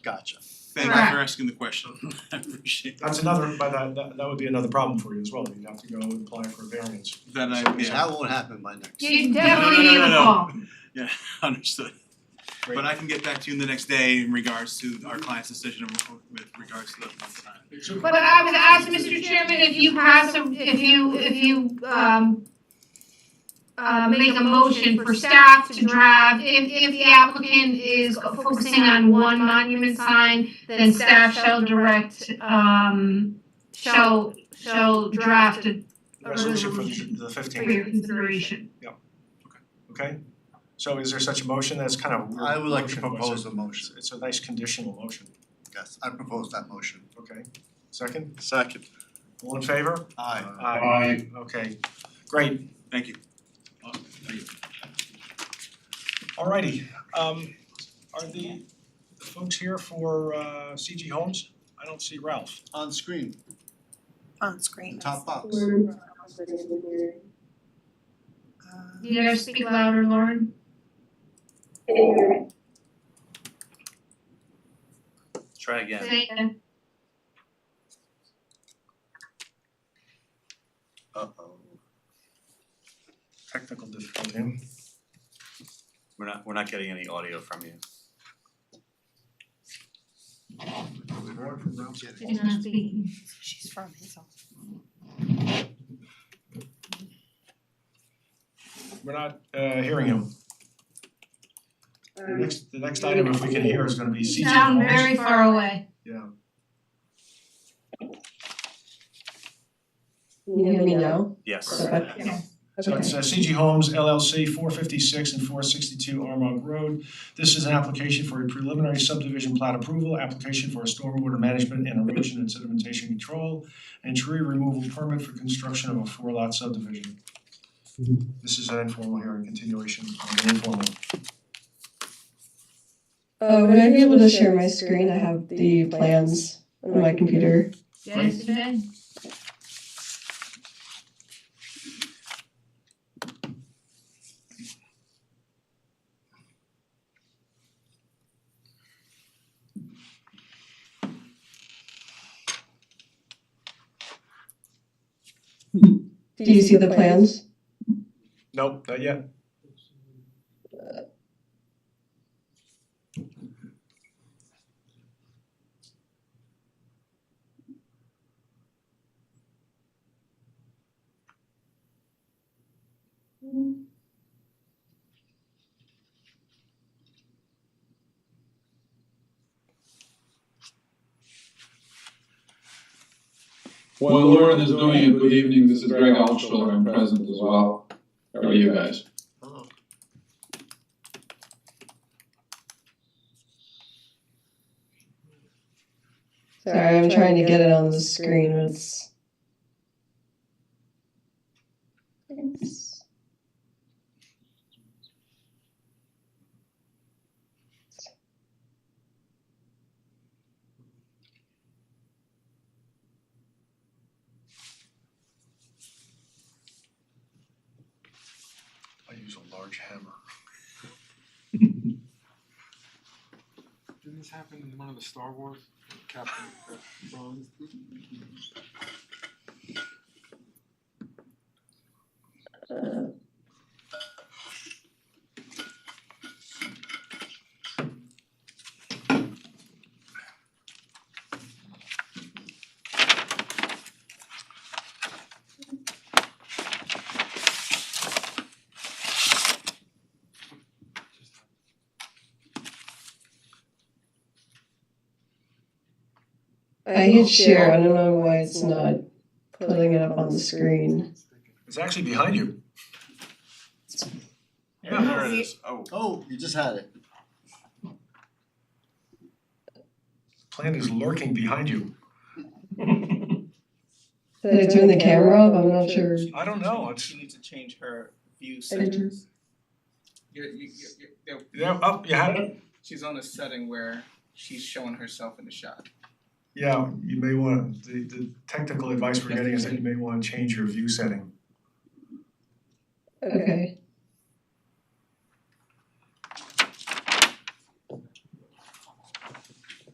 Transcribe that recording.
Gotcha. Thank you for asking the question. I appreciate that. That's another, but that that that would be another problem for you as well, you'd have to go and apply for a variance. That I, So so yeah, that won't happen by next. You no, no, definitely no, need no, a no. call. yeah, understood. Great. But I can get back to you in the next day in regards to our client's decision with regards to the month time. But I would ask Mr. Chairman if you pass a, if you, if you, um, uh, make a motion for staff to draft, if, if the applicant is focusing on one monument sign, then staff shall direct, um, shall, shall draft it Resolution for the the for fifteenth, your consideration. okay? So is there such a motion that's kind of a weird I would like to motion, but it's a- propose a motion. It's a nice conditional motion, Yes, I propose that motion. okay? Second, Second. all in favor? Aye. Aye. Okay, great, Thank you. Uh, thank you. Alrighty, um are the the folks here for uh CG Homes? I don't see Ralph. On screen, on the screen. top box. Uh, You gotta speak louder, Lauren. Try again. Say it. Uh-oh. Technical difficulty. We're not, we're not getting any audio from you. She's not speaking. She's from his office. We're not uh hearing him. The next, the next item, if we can hear, is gonna be CG Um, Sound Homes. very far away. Yeah, You hear me now? Yes. Okay. so it's uh, CG Homes LLC, four fifty-six and four sixty-two Armagh Road. This is an application for a preliminary subdivision plat approval, application for a stormwater management and erosion and sedimentation control, and tree removal permit for construction of a four-lot subdivision. This is an informal hearing, continuation of an informal. Uh, would I be able to share my screen? I have the plans on my computer. Yes, Ben? Do you see the plans? Nope, not yet. While Lauren is doing it, good evening, this is Greg Altschuler, I'm present as well. How are you guys? Hello. Sorry, I'm trying to get it on the screen, but it's. It's- I use a large hammer. Didn't this happen in one of the Star Wars, Captain uh, Bones? uh, I hit share. I don't know why it's not putting it up on the screen. It's actually behind you. Yeah, there it is. Oh, Oh, you just had it. Plan is lurking behind you. Did I turn the camera off? I'm not sure. I don't know, it's, She needs to change her view I didn't- settings. You're, you, you you yeah, up, you had it? she's on a setting where she's showing herself in the shot. Yeah, you may wanna, the, the technical advice we're getting is that you may wanna change your view setting. Okay.